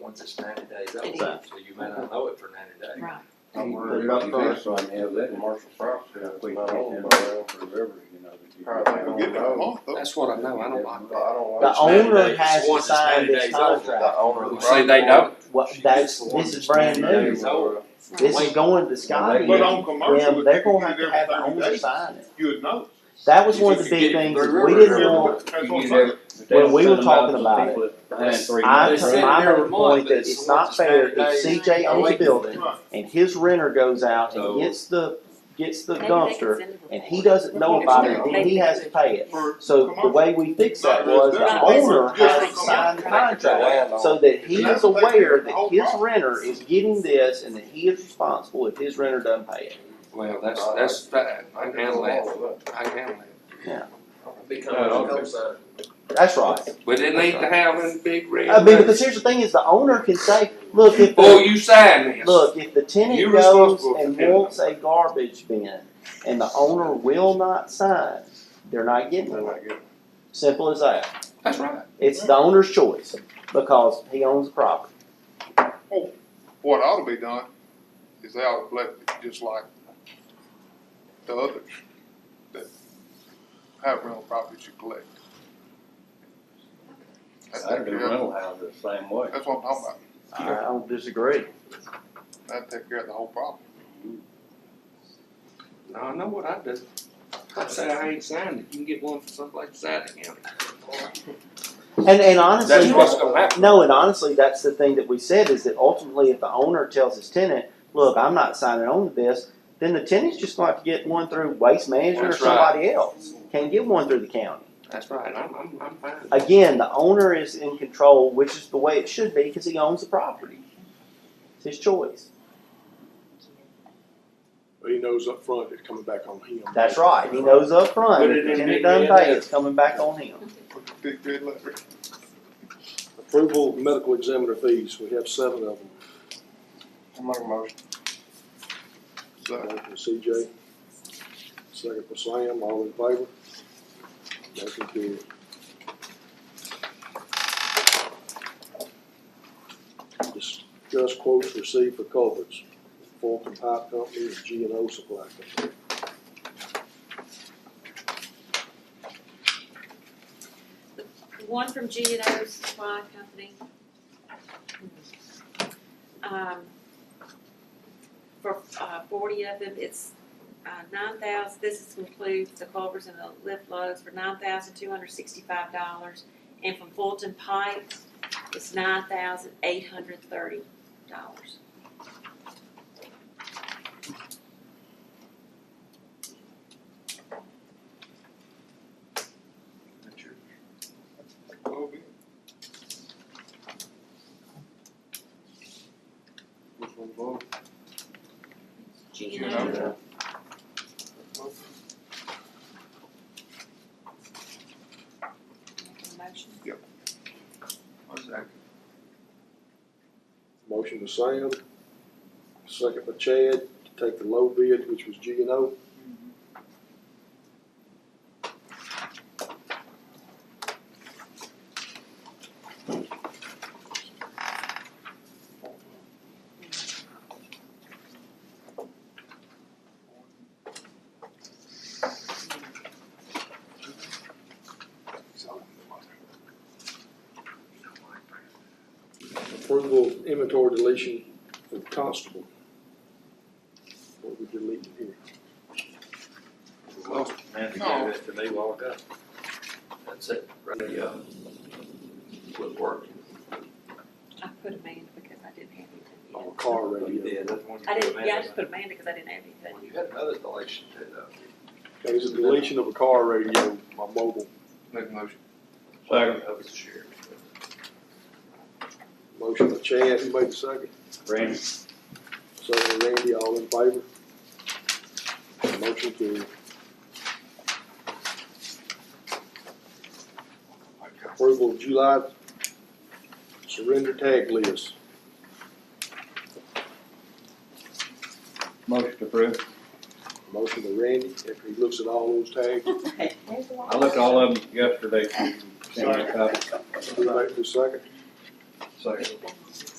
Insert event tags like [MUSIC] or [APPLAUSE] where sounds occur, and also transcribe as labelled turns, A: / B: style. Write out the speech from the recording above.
A: once it's ninety days old,
B: It
A: so you may not know it for ninety days.
B: Right.
C: I'm worried about the fence line, have that commercial property, I quit getting around forever, you know. that you-
D: Probably gonna
E: Give it a
D: go.
E: month though.
D: That's what I know, I don't like that. I don't
F: The
D: like.
F: owner has to
A: Once it's
F: sign
A: 90
F: this
A: days old, the
F: contract.
D: owner
A: of the
D: See,
A: property.
D: they know.
F: What, that's, this is brand new.
A: It's old.
F: This is going to Scotty.
E: But on
F: Them,
E: commercial,
F: they're
E: if you
F: gonna have
E: did
F: to have the
E: everything
F: owner
E: today,
F: sign it.
E: you would know.
F: That was one of
A: If
F: the
A: you
F: big
A: get it
F: things,
A: through
F: that we
A: river,
F: didn't
A: river.
F: want,
E: That's
C: You
E: what I'm
C: never-
E: saying.
F: When we were talking about it, I,
A: They sit
F: I
A: there
F: made
A: a
F: the
A: month,
F: point that
A: it's once
F: it's not
A: it's
F: fair
A: 90 days.
F: if CJ owns a
A: Right.
F: building
E: Right.
F: and his renter goes out
A: So-
F: and gets the, gets the
B: Maybe they can
F: dumpster
B: send it to
F: and he
B: them.
F: doesn't know about it, then he has to pay it. So the way we fixed that was the owner has to sign the contract. So that he is aware that his renter is getting this and that he is responsible if his renter doesn't pay it.
C: Well, that's, that's fine, I can handle that, I can handle
F: That's right.
C: that, but it ain't to have them big red.
F: I mean, because here's the thing is the owner can say, look, if
C: Before
F: the,
C: you sign this.
F: look, if the tenant
C: Oh, You're
F: goes
C: responsible for
F: and
C: tenant.
F: wants a garbage bin and the owner will not sign, they're not getting it. Simple as that.
C: That's right.
F: It's the owner's choice because he owns the property.
E: What ought to be done is they ought to collect it just like the others that have rental properties you collect. That's
D: I do rental houses the same way.
E: that's what I'm talking about.
F: I don't disagree.
E: That'd take care of the whole problem.
C: Now, I know what I do. I say I ain't signed it, you can get one for someplace beside the county.
F: And, and honestly.
C: That's what's gonna happen.
F: No, and honestly, that's the thing that we said is that ultimately, if the owner tells his tenant, "Look, I'm not signing on to this," then the tenant's just going to have to get one through waste management
C: That's
F: or
C: right.
F: somebody else. Can't get one through the county.
C: That's right, I'm, I'm, I'm fine.
F: Again, the owner is in control, which is the way it should be because he owns the property. It's his choice.
G: He knows up front it's coming back on him.
F: That's right. He knows up front.
C: Put
F: If
C: it
F: the
C: in
F: tenant
C: big
F: doesn't
C: red
F: pay,
C: letters.
F: it's coming back on him.
E: Big red letter.
G: Approval of medical examiner fees, we have seven of them.
D: I'm making a motion.
E: So,
G: Motion for CJ, second for Sam, all in favor? Motion carried. Discuss quotes received for culverts, Fulton Pipe Company and G and O Supply Company.
B: One from G and O Supply Company. Um, for, uh, forty of them, it's, uh, nine thousand, this is includes the culverts and the lift loads for nine thousand two hundred sixty-five dollars. And from Fulton Pike, it's nine thousand eight hundred thirty dollars.
E: Kobe. Which one's low?
B: G
E: You
B: and
E: know.
B: O, motion.
G: Motion to Sam, second for Chad, to take the low bid, which was G and O. Approval of inventory deletion for constable. What we deleting here?
A: Man, you
E: No.
A: gave it to me while ago. uh, That's it, right, um, yeah. Would work.
B: I put Amanda because I didn't have anything.
G: Our car radio.
A: Yeah, that's one you
B: I
A: put
B: didn't, yeah, I
A: Amanda's
B: just put Amanda because I didn't have
A: in.
B: [LAUGHS] anything.
A: Well, You had another delation too, though.
G: It was a deletion of a car radio, my mobile.
E: Make a motion.
A: Second. That was the sheriff.
G: Motion by Chad, who made the second?
A: Randy.
G: Second by Randy, all in favor? Motion carried. Approval of July surrender tag list.
D: Motion approved.
G: Motion by Randy, after he looks at all those tags,
D: I looked all of them yesterday.
G: who made the second?
B: Sorry.